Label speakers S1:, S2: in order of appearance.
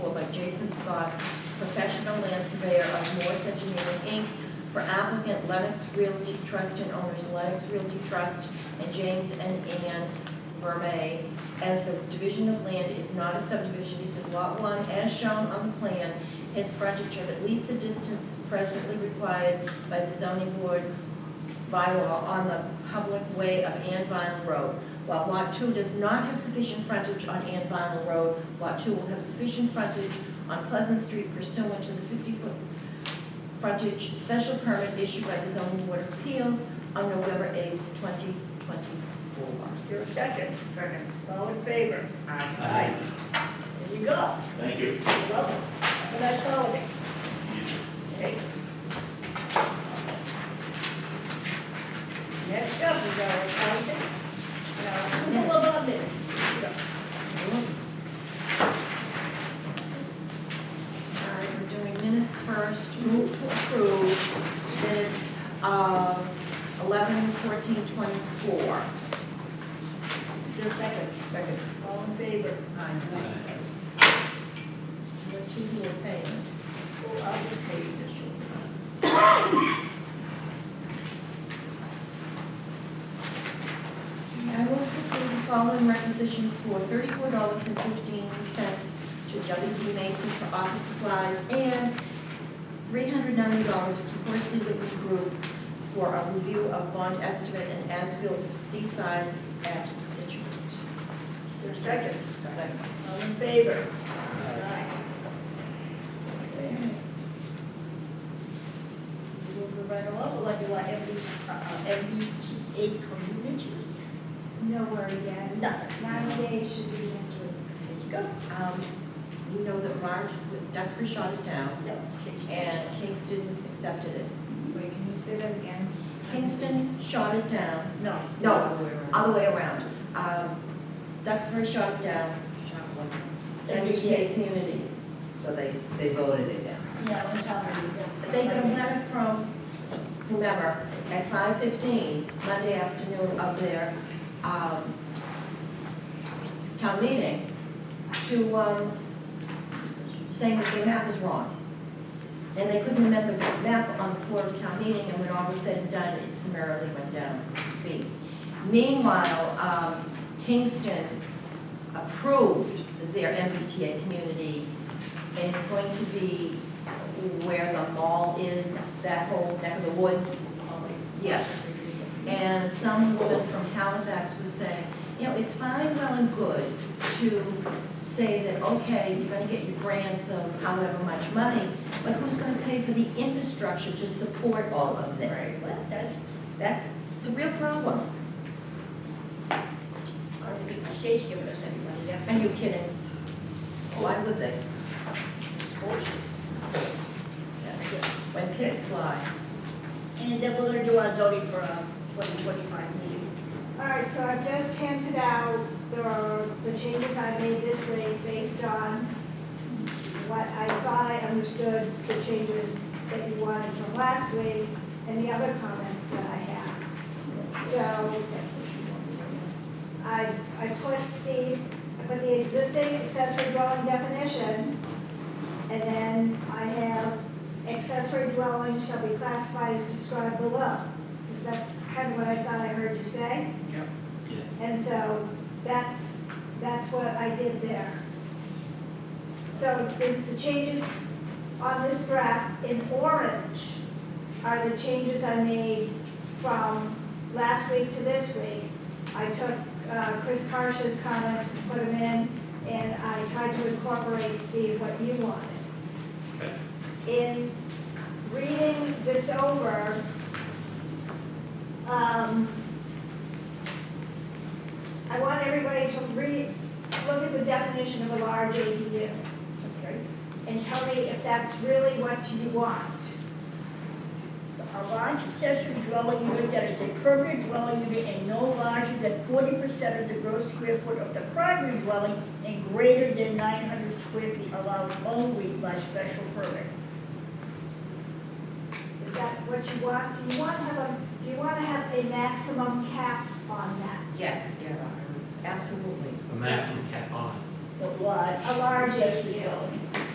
S1: Scott, professional land surveyor of Morse Engineering, Inc., for applicant Lennox Realty Trust and owners Lennox Realty Trust and James and Ann Verme, as the division of land is not a subdivision because Lot 1, as shown on the plan, has frontage of at least the distance presently required by the zoning board by law on the public way of Ann Vinyl Road. While Lot 2 does not have sufficient frontage on Ann Vinyl Road, Lot 2 will have sufficient frontage on Pleasant Street pursuant to the 50-foot frontage special permit issued by the zoning board of appeals on November 8th, 2024.
S2: Is there a second? Second. All in favor?
S3: Aye.
S2: There you go.
S3: Thank you.
S2: You're welcome. Have a nice holiday. Okay. Next up is our accountant. Now, couple of our minutes.
S1: All right, we're doing minutes first, move to approve minutes of eleven fourteen twenty-four.
S2: Is there a second? Second. All in favor? Aye.
S1: Let's see who we're paying.
S2: Oh, I'll just pay you this one.
S1: I will approve the following requisitions for thirty-four dollars and fifteen cents to W.D. Mason for office supplies and three hundred ninety dollars to Horsley Whitney Group for a review of bond estimate and as-built for Seaside at Situate.
S2: Is there a second? Second. All in favor? Aye. Okay. We'll go right along, we'll do our MB, uh, MBTA communities.
S4: No worry, yet.
S2: No.
S4: Ninety days should be next week.
S2: There you go.
S1: Um, You know that Marge was, Duxbury shot it down,
S2: No, please.
S1: and Kingston accepted it.
S4: Wait, can you say that again?
S1: Kingston shot it down,
S2: No.
S1: no, other way around. Um, Duxbury shot it down, MBTA communities.
S5: So they, they voted it down.
S2: Yeah, I'm sorry.
S1: They got a letter from whomever at five fifteen, Monday afternoon of their, um, town meeting to, um, saying that their map was wrong. And they couldn't amend the map on the floor of town meeting, and when all was said and done, it summarily went down to B. Meanwhile, um, Kingston approved their MBTA community, and it's going to be where the mall is, that whole neck of the woods. Yes. And some woman from Halifax was saying, you know, it's fine, well and good to say that, okay, you're gonna get your grants of however much money, but who's gonna pay for the infrastructure to support all of this?
S2: Well, that's,
S1: That's, it's a real problem.
S2: I don't think the state's giving us anybody, yeah.
S1: Are you kidding? Why would they?
S2: It's bullshit.
S1: When pigs fly.
S2: And then we're gonna do our zoning for uh twenty twenty-five meeting.
S4: All right, so I've just handed out the, the changes I made this week based on what I thought I understood, the changes that you wanted from last week, and the other comments that I had. So I, I put Steve, I put the existing accessory dwelling definition, and then I have accessory dwelling shall be classified as described below. Because that's kind of what I thought I heard you say.
S3: Yeah.
S4: And so that's, that's what I did there. So the, the changes on this graph in orange are the changes I made from last week to this week. I took uh, Chris Karsh's comments and put them in, and I tried to incorporate, Steve, what you wanted. In reading this over, um, I want everybody to read, look at the definition of a large ADU. And tell me if that's really what you want.
S2: So a large accessory dwelling unit that is a permanent dwelling unit and no larger than forty percent of the gross square foot of the primary dwelling and greater than nine hundred square feet allowed only by special permit.
S4: Is that what you want? Do you want to have a, do you want to have a maximum cap on that?
S1: Yes. Absolutely.
S3: A maximum cap on.
S2: The large
S4: A large
S2: accessory
S4: ADU.
S2: dwelling.